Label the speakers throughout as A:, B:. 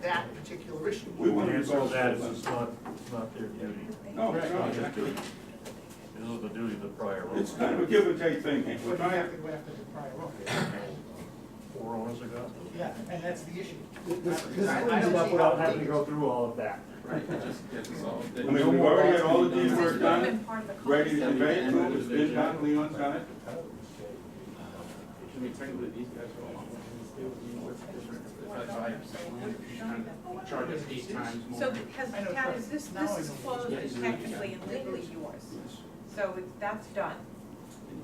A: that particular issue.
B: We want to
C: Answer
B: resolve
C: that is
B: this.
C: it's not, it's not their duty.
B: No, no, exactly.
C: This is the duty of the prior owner.
B: It's kind of a give and take thing. here. We're
A: But you have
B: trying,
A: to go after the prior owner.
C: Four owners ago.
A: Yeah, and that's the issue.
D: This, this
A: I- I
D: cleans
A: don't
D: it up
A: see how
D: without
A: it
D: having to
A: takes-
D: go through all of that.
E: Right, it just gets us all.
B: I mean, we've already had all the deed work
F: been
B: done,
F: part of the cul
B: ready to convey it to them, it's been done, Leon's done it.
E: I mean, technically, these guys go along with it. If I buy a land, I'm charged eight times more.
F: So because,
A: I know,
F: Pat, is this,
A: now I
F: this is
A: know.
F: closed and technically and legally yours, so it's, that's done.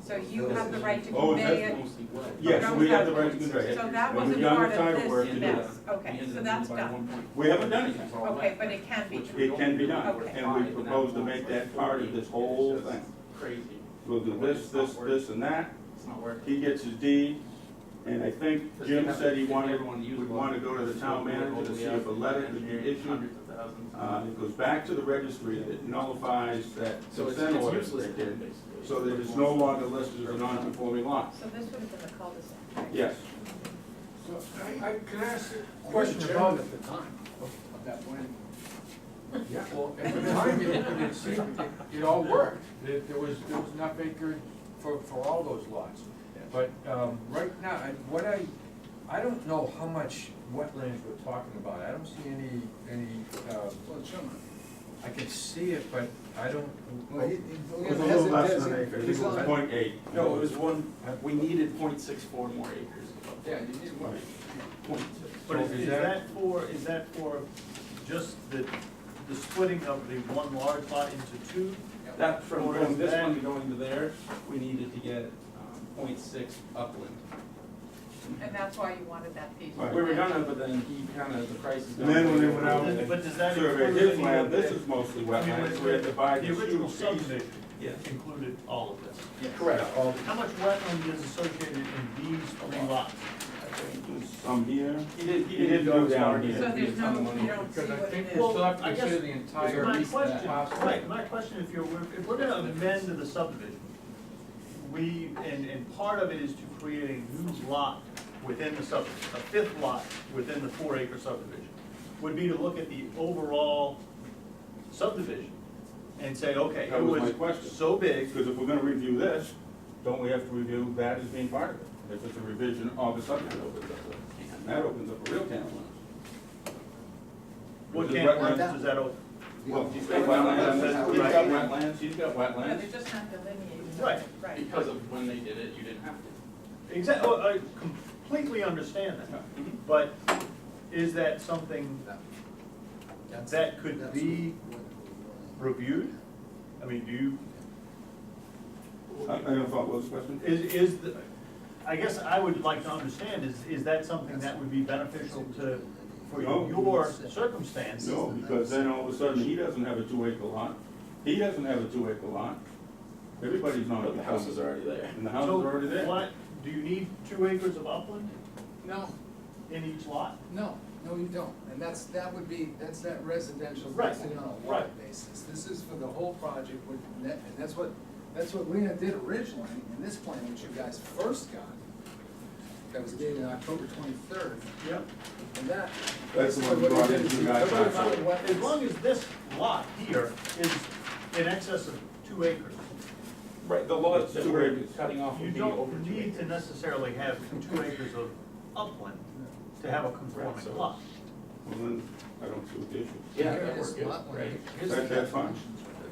F: So you have the right to
B: Oh,
F: convey
B: that's-
F: it.
E: Mostly what?
B: Yes, we have the right to convey it.
F: So that
B: And
F: wasn't
B: we've done
F: part
B: the
F: of
B: title work to
F: this
B: do
F: mess,
E: We
F: okay,
E: ended
F: so
E: up
F: that's
E: by
F: done,
E: 1.4.
B: We haven't done anything.
F: okay, but it can be.
B: It can be done,
F: Okay.
B: and we propose to make that part of this whole thing.
E: Crazy.
B: We'll do this, this, this, and that.
E: It's not worth it.
B: He gets his deed, and I think Jim said he wanted, we want to go to the town manager to see if a letter could be issued.
E: Hundreds of thousands.
B: Uh, it goes back to the registry, it nullifies that
E: So it's
B: consent
E: it's
B: order
E: useless.
B: they
E: then,
B: did.
E: basically.
B: So that it's no longer listed as a non-conforming lot.
F: So this would have been the cul-de-sac, right?
B: Yes.
G: So, I, I, can I ask a question about at the time of that plan? Yeah, well, at the time, it, it seemed, it, it all worked, there, there was, there was enough acre for, for all those lots. But, um, right now, I, what I, I don't know how much wetlands we're talking about, I don't see any, any, um,
H: Well, it's shown.
G: I can see it, but I don't.
H: Well, he- he-
B: It was a little less than an acre, it was
H: He's on-
B: point eight.
E: No, it was one, uh, we needed 0.64 more acres.
H: Yeah, you need one.
E: Point
G: But
C: But
G: is-
C: is,
G: is that
C: that for, is that for just the, the splitting of the one large lot into two?
E: That, from
C: Or
E: going
C: is
E: this
C: that-
E: one to going to there, we needed to get um, 0.6 upland.
F: And that's why you wanted that piece. of
B: Right.
E: We were
F: land.
E: gonna, but then he kind of, the price is.
B: And then when they went out
C: Does- But does that
B: Survey
C: include
B: his
C: any
B: land,
C: of
B: this
C: the?
B: is mostly
C: I mean,
B: wetlands, we had to buy
C: The
B: this huge
C: original
B: piece.
C: subdivision
E: Yeah.
C: included all of this.
E: Correct.
C: How much wetland is associated in these three lots?
B: Some here,
E: He did, he
B: He didn't
E: didn't
B: go
E: go
B: down
E: down
B: here.
E: here.
F: So there's no, you don't see
G: Because I
F: what
G: think
F: it
G: we
F: is.
G: still have to
C: Well, I guess-
G: consider the entire.
C: My
G: piece of that
C: question,
G: parcel.
C: right, my question, if you're, if we're gonna amend the subdivision, we, and, and part of it is to create a new lot within the subdivision, a fifth lot within the four acre subdivision, would be to look at the overall subdivision and say, okay,
B: That
C: it
B: was my
C: was
B: question.
C: so big,
B: because if we're gonna review this, don't we have to review that as being part of it? If it's a revision of the subdivision, that opens up a- and that opens up a real can of worms.
C: what
B: Because
C: can of
B: wetlands-
C: worms does that open?
B: Well, he's got wetlands, he's got wetlands, he's got
F: No,
B: wetlands.
F: they're just not delineated.
C: Right.
F: Right.
E: Because of when they did it, you didn't have to.
C: Exactly, oh, I completely understand that, but is that something that could be reviewed? I mean, do you,
B: I, I don't follow those questions.
C: is, is, the- I guess I would like to understand, is, is that something that would be beneficial to, for
B: No.
C: your circumstance?
B: No, because then all of a sudden, he doesn't have a two acre lot, he doesn't have a two acre lot, everybody's not.
E: But Oh, the house is already there.
B: And the house is
C: So
B: already there.
C: what, do you need two acres of upland
H: No,
C: in each lot?
H: no, no, you don't, and that's, that would be, that's that residential,
C: Right,
H: that's on a lot
C: right.
H: basis. This is for the whole project, with net- and that's what, that's what Lena did originally, in this plan, which you guys first got, that was dated October twenty-third,
C: Yep.
H: and that.
B: That's the one
H: what
B: brought
H: did
B: into
H: is you
B: guys
H: took it
B: last
H: out
B: year.
H: what-
C: As long as this lot here is in excess of two acres,
E: Right, the
B: lot that we're
E: cutting off
C: you don't need to necessarily have two acres of upland to have a conforming
B: Well,
C: lot.
B: then, I don't see what the issue.
E: Yeah,
H: Here
E: that
H: it is,
E: worked good,
H: lot one.
E: right?
H: Here's
B: That-
H: the-
B: that's fine.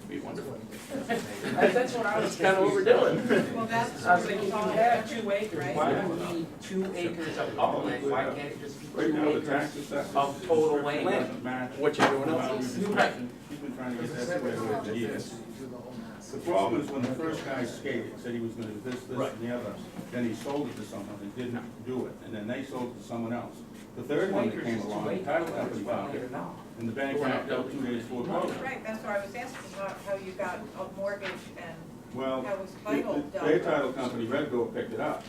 E: That'd be wonderful.
H: That's
I: That's what I was
E: Kind of overdoing.
F: Well, that's.
I: I was thinking, if you have two acres,
F: Right.
I: why do we need two acres of upland, why can't it just be
B: Right
I: two
B: now, the
I: acres?
B: tax assessment.
I: of total land.
B: What
I: everyone else is.
B: He's been trying to get
H: It's
B: that
H: separate
B: away
H: from
B: with
H: the
B: the years.
H: fence, you do the whole mass.
B: The problem is when the first guy skated, said he was gonna do this, this, and the other, then he sold it to someone that did not do it, and then they sold it to someone else. The third
I: Two
B: one that
I: acres
B: came
I: is two
B: along, the
I: acres,
B: title
I: whether
B: company
I: it's
B: found
I: wetland or
B: it,
I: not.
B: and the bank knocked out two days for closing.
F: Right, that's what I was asking, about how you got a mortgage and
B: Well,
F: That was
B: it-
F: title
B: it-
F: done.
B: their title company, Red Gold, picked it up.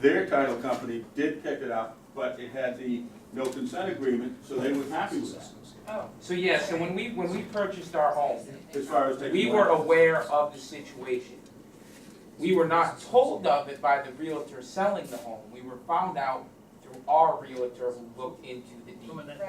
B: Their title company did pick it up, but it had the no consent agreement, so they were happy with that,
F: Oh,
I: So yeah, so when we, when we purchased our home,
B: as far as taking.
I: we were
B: land.
I: aware of the situation. We were not told of it by the realtor selling the home, we were found out through our realtor who looked into the deed.